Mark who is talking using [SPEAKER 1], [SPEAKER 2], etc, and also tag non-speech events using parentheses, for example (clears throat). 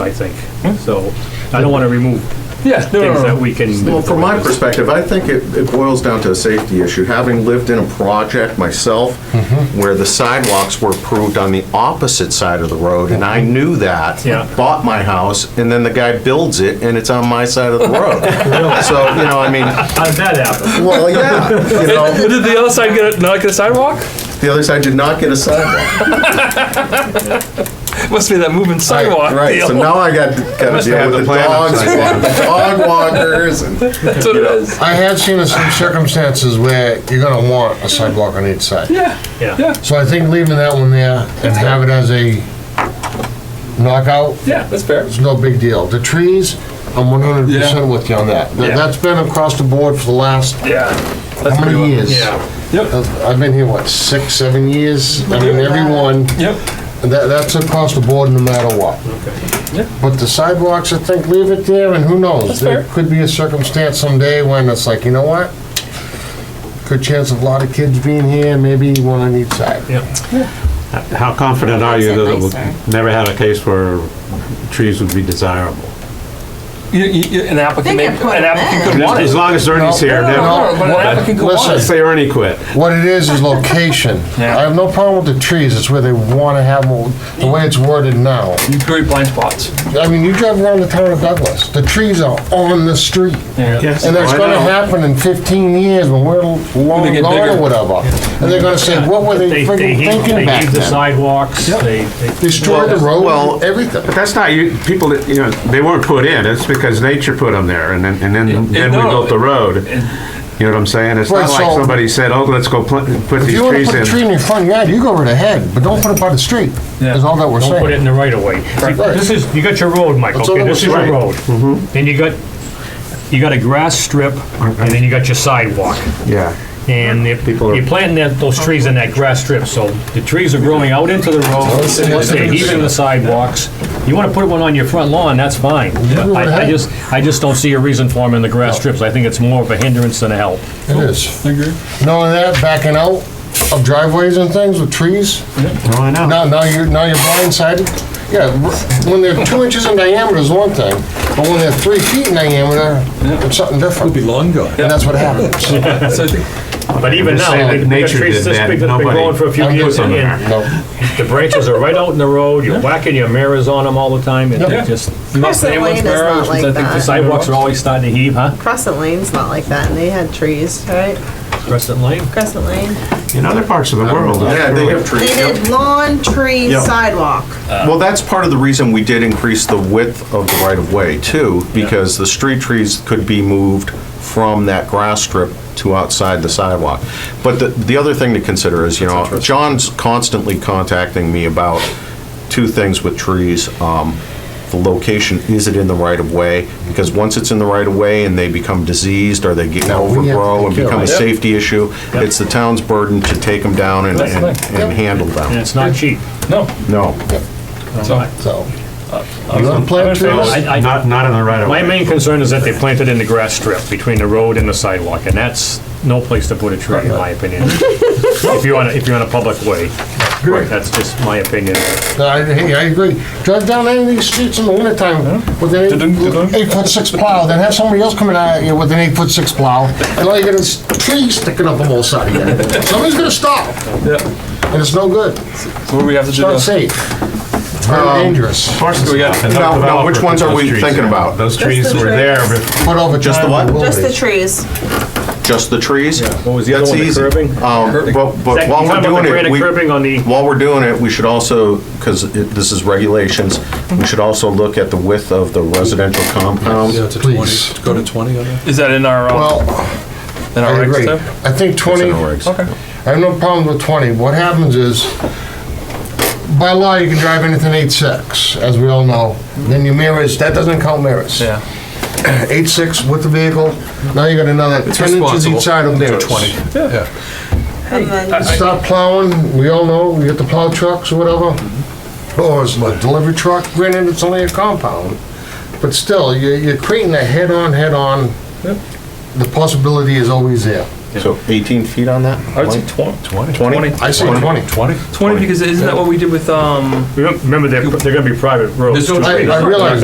[SPEAKER 1] I think.
[SPEAKER 2] Hmm?
[SPEAKER 1] So I don't want to remove
[SPEAKER 3] Yeah, no, no,
[SPEAKER 1] things
[SPEAKER 3] no.
[SPEAKER 1] that we can.
[SPEAKER 2] Well, from my perspective, I think it, it boils down to a safety issue. Having lived in a project myself
[SPEAKER 4] Mm-hmm.
[SPEAKER 2] where the sidewalks were approved on the opposite side of the road, and I knew that.
[SPEAKER 1] Yeah.
[SPEAKER 2] Bought my house, and then the guy builds it, and it's on my side of the
[SPEAKER 4] (laughs)
[SPEAKER 2] road. So, you know, I mean,
[SPEAKER 1] How did that happen?
[SPEAKER 2] well, yeah, you know,
[SPEAKER 3] But did the other side get a, not get a sidewalk?
[SPEAKER 2] the other side did not get a sidewalk.
[SPEAKER 3] Must be that moving sidewalk
[SPEAKER 2] Right,
[SPEAKER 3] deal.
[SPEAKER 2] so now I got, got to deal
[SPEAKER 4] had
[SPEAKER 2] with
[SPEAKER 4] the
[SPEAKER 2] the
[SPEAKER 4] plan
[SPEAKER 2] dogs,
[SPEAKER 4] upside
[SPEAKER 2] the dog walkers, and,
[SPEAKER 3] That's what it is.
[SPEAKER 5] I have seen in some circumstances where you're gonna want a sidewalk on each side.
[SPEAKER 3] Yeah.
[SPEAKER 1] Yeah.
[SPEAKER 3] Yeah.
[SPEAKER 5] So I think leaving that one there and have it as a knockout,
[SPEAKER 3] Yeah, that's fair.
[SPEAKER 5] it's no big deal. The trees, I'm one hundred percent with you on that. Th-
[SPEAKER 3] Yeah.
[SPEAKER 5] That's been across the board for the last,
[SPEAKER 3] Yeah. That's
[SPEAKER 5] how
[SPEAKER 3] a good
[SPEAKER 5] many
[SPEAKER 3] one.
[SPEAKER 5] years?
[SPEAKER 1] Yeah.
[SPEAKER 3] Yep.
[SPEAKER 5] I've I've been here, what, six, seven years? I mean, everyone,
[SPEAKER 3] Yep.
[SPEAKER 5] that, that's across the board no matter what.
[SPEAKER 3] Yeah.
[SPEAKER 5] But the sidewalks, I think, leave it there, and who knows? There
[SPEAKER 3] fair.
[SPEAKER 5] could be a circumstance someday when it's like, you know what? Good chance of a lot of kids being here, maybe one on each side.
[SPEAKER 4] How confident are you that it
[SPEAKER 6] That's nicer.
[SPEAKER 4] will never had a case where trees would be desirable?
[SPEAKER 3] You, you, you, an applicant,
[SPEAKER 6] They
[SPEAKER 3] may,
[SPEAKER 6] can put
[SPEAKER 3] an
[SPEAKER 6] them
[SPEAKER 3] applicant
[SPEAKER 6] in.
[SPEAKER 3] could want it.
[SPEAKER 4] As long as Ernie's here,
[SPEAKER 3] No,
[SPEAKER 4] then,
[SPEAKER 3] no, no, but an
[SPEAKER 5] Well,
[SPEAKER 3] applicant could want it.
[SPEAKER 5] listen.
[SPEAKER 4] say Ernie quit.
[SPEAKER 5] What it is, is location.
[SPEAKER 3] Yeah.
[SPEAKER 5] I have no problem with the trees, it's where they wanna have them, the way it's worded now.
[SPEAKER 3] You create blind spots.
[SPEAKER 5] I mean, you drive around the town of Douglas, the trees are on the street.
[SPEAKER 3] Yeah.
[SPEAKER 5] And that's gonna happen in fifteen years when we're long
[SPEAKER 3] get
[SPEAKER 5] gone
[SPEAKER 3] bigger.
[SPEAKER 5] or whatever. And they're gonna say, what were they
[SPEAKER 1] they
[SPEAKER 5] friggin'
[SPEAKER 1] heave-
[SPEAKER 5] thinking
[SPEAKER 1] They
[SPEAKER 5] back
[SPEAKER 1] heave the
[SPEAKER 5] then?
[SPEAKER 1] sidewalks, they, they-
[SPEAKER 5] Destroy the
[SPEAKER 4] Well-
[SPEAKER 5] road, everything.
[SPEAKER 4] But that's not, you, people, that, you know, they weren't put in, it's because nature put them there, and then, and then, then we
[SPEAKER 3] no.
[SPEAKER 4] built the road. You know what I'm saying? It's
[SPEAKER 5] Right,
[SPEAKER 4] not like
[SPEAKER 5] so-
[SPEAKER 4] somebody said, oh, let's go plant, put
[SPEAKER 5] If
[SPEAKER 4] these
[SPEAKER 5] you wanna
[SPEAKER 4] trees
[SPEAKER 5] put a tree
[SPEAKER 4] in.
[SPEAKER 5] in your front yard, you go right ahead, but don't put it by the street, is all that we're
[SPEAKER 1] don't put it
[SPEAKER 5] saying.
[SPEAKER 1] in the right of way. See,
[SPEAKER 5] Right.
[SPEAKER 1] This is, you got your road, Mike,
[SPEAKER 5] That's all
[SPEAKER 1] okay,
[SPEAKER 5] that
[SPEAKER 1] this is
[SPEAKER 5] was
[SPEAKER 1] your
[SPEAKER 5] right.
[SPEAKER 1] road.
[SPEAKER 2] Mm-hmm.
[SPEAKER 1] Then you got, you got a grass strip, and then you got your sidewalk.
[SPEAKER 4] Yeah.
[SPEAKER 1] And if
[SPEAKER 4] People are-
[SPEAKER 1] you're planting that, those trees in that grass strip, so the trees are growing out into Oh, the road, they're heaving the sidewalks. You wanna put one on your front lawn, that's fine. I, I just, I just don't see a reason for them in the grass strips, I think it's more of a hindrance than a help.
[SPEAKER 5] It is. Knowing that, backing out of driveways and things with trees,
[SPEAKER 4] Oh, I know.
[SPEAKER 5] now, now you're, now you're blindsided. Yeah, r- when they're two inches in diameter is one thing, but when they're three feet in diameter, it's something different.
[SPEAKER 7] be long gone.
[SPEAKER 5] And that's what happens.
[SPEAKER 2] (laughs)
[SPEAKER 7] So I think
[SPEAKER 1] But even
[SPEAKER 4] just
[SPEAKER 1] now,
[SPEAKER 4] saying,
[SPEAKER 1] they-
[SPEAKER 4] if
[SPEAKER 1] they've got
[SPEAKER 4] nature
[SPEAKER 1] trees
[SPEAKER 4] did
[SPEAKER 1] this
[SPEAKER 4] that,
[SPEAKER 1] big that's been
[SPEAKER 4] nobody-
[SPEAKER 1] growing for a few
[SPEAKER 4] I'd put
[SPEAKER 1] years,
[SPEAKER 4] some
[SPEAKER 1] and
[SPEAKER 4] in
[SPEAKER 1] and
[SPEAKER 5] No.
[SPEAKER 1] the branches are right out in the road, you're whacking your mirrors on them all the time, and they
[SPEAKER 5] Yeah.
[SPEAKER 1] just,
[SPEAKER 3] Most
[SPEAKER 6] Crescent Lane is not like
[SPEAKER 1] the
[SPEAKER 6] that.
[SPEAKER 1] sidewalks are always starting to heave, huh?
[SPEAKER 6] Crescent Lane's not like that, and they had trees, right?
[SPEAKER 1] Crescent Lane?
[SPEAKER 6] Crescent Lane.
[SPEAKER 4] In other parts of the world. that's
[SPEAKER 2] yeah, they
[SPEAKER 4] really-
[SPEAKER 2] have
[SPEAKER 6] They
[SPEAKER 2] trees. yep.
[SPEAKER 6] did lawn, tree,
[SPEAKER 1] Yep.
[SPEAKER 6] sidewalk.
[SPEAKER 2] Well, that's part of the reason we did increase the width of the right-of-way too, because the street trees could be moved from that grass strip to outside the sidewalk. But the, the other thing to consider is, you know, John's constantly contacting me about two things with trees. Um, The location, is it in the right-of-way? Because once it's in the right-of-way and they become diseased, or they get
[SPEAKER 5] we have to
[SPEAKER 2] overgrow and
[SPEAKER 5] take care of
[SPEAKER 2] become a
[SPEAKER 5] it.
[SPEAKER 2] safety issue, it's the town's burden to take them down and,
[SPEAKER 3] That's
[SPEAKER 2] and
[SPEAKER 3] right.
[SPEAKER 2] and handle
[SPEAKER 1] And
[SPEAKER 2] them.
[SPEAKER 1] it's not cheap.
[SPEAKER 3] No.
[SPEAKER 2] No.
[SPEAKER 3] So,
[SPEAKER 5] So, you want to plant trees?
[SPEAKER 1] I- I-
[SPEAKER 4] Not, not in the right of
[SPEAKER 1] My
[SPEAKER 4] way.
[SPEAKER 1] main concern is that they planted in the grass strip between the road and the sidewalk, and that's no place to put a tree, in my opinion. If you're on, a- if you're on a public way, that's just my opinion.
[SPEAKER 5] No, I- Hey, I agree. Drive down any of these streets in the wintertime with an eight- eight-foot-six plow, then have somebody else coming out at you with an eight-foot-six plow, and all you get is trees sticking up on both sides
[SPEAKER 2] (laughs)
[SPEAKER 5] of you. Somebody's gonna stop,
[SPEAKER 7] yeah.
[SPEAKER 5] and it's no good.
[SPEAKER 7] So what do we have to
[SPEAKER 5] It's
[SPEAKER 7] do? now?
[SPEAKER 5] not safe.
[SPEAKER 2] Um,
[SPEAKER 5] Very dangerous.
[SPEAKER 4] Parts
[SPEAKER 7] do we got?
[SPEAKER 4] of
[SPEAKER 2] No,
[SPEAKER 4] the-
[SPEAKER 2] no, which
[SPEAKER 4] developer
[SPEAKER 2] ones
[SPEAKER 4] put
[SPEAKER 2] are
[SPEAKER 4] those
[SPEAKER 2] we
[SPEAKER 4] trees
[SPEAKER 2] thinking
[SPEAKER 4] in.
[SPEAKER 2] about?
[SPEAKER 4] Those trees
[SPEAKER 6] the
[SPEAKER 4] were
[SPEAKER 6] trees.
[SPEAKER 4] there before
[SPEAKER 5] Put over
[SPEAKER 2] Just the
[SPEAKER 5] time
[SPEAKER 2] what?
[SPEAKER 5] will
[SPEAKER 6] Just
[SPEAKER 5] be.
[SPEAKER 6] the trees.
[SPEAKER 2] Just the trees?
[SPEAKER 1] What was the other
[SPEAKER 2] That's
[SPEAKER 1] one, the
[SPEAKER 2] easy.
[SPEAKER 1] curbing?
[SPEAKER 2] Um, But, but
[SPEAKER 1] Second, you
[SPEAKER 2] while we're
[SPEAKER 1] talking about
[SPEAKER 2] doing
[SPEAKER 1] the
[SPEAKER 2] it,
[SPEAKER 1] granite
[SPEAKER 2] we,
[SPEAKER 1] curbing on the-
[SPEAKER 2] while we're doing it, we should also, because this is regulations, we should also look at the width of the residential
[SPEAKER 7] Yeah,
[SPEAKER 2] compound.
[SPEAKER 7] to
[SPEAKER 5] Please.
[SPEAKER 7] 20. Go to 20 on that?
[SPEAKER 3] is that in our, uh,
[SPEAKER 5] Well,
[SPEAKER 7] In
[SPEAKER 5] I
[SPEAKER 7] our
[SPEAKER 5] agree.
[SPEAKER 7] exit?
[SPEAKER 5] I think
[SPEAKER 2] It's in
[SPEAKER 5] twenty,
[SPEAKER 2] our regs.
[SPEAKER 5] I have no problems with 20. What happens is, by law, you can drive anything eight-six, as we all know. Then your mirrors, that doesn't count mirrors. (clears throat)
[SPEAKER 7] Yeah.
[SPEAKER 5] Eight-six with the vehicle, now you got another 10 inches
[SPEAKER 7] responsible
[SPEAKER 5] each side of
[SPEAKER 7] To
[SPEAKER 5] mirrors.
[SPEAKER 7] 20. Yeah.
[SPEAKER 6] And then
[SPEAKER 5] Stop plowing, we all know, you get the plow trucks or whatever,
[SPEAKER 7] Mm-hmm.
[SPEAKER 5] or it's a delivery truck, granted, it's only a compound. But still, you- you're creating a head-on, head-on, the possibility is always there.
[SPEAKER 2] So 18 feet on that?
[SPEAKER 3] I would say twen-
[SPEAKER 2] 20?
[SPEAKER 3] 20.
[SPEAKER 2] 20?
[SPEAKER 5] I say 20.
[SPEAKER 3] 20? 20, because isn't that what we did with, um,
[SPEAKER 1] Remember, they're, they're gonna be private roads.
[SPEAKER 3] There's no
[SPEAKER 1] too.
[SPEAKER 3] tree.
[SPEAKER 5] I I realize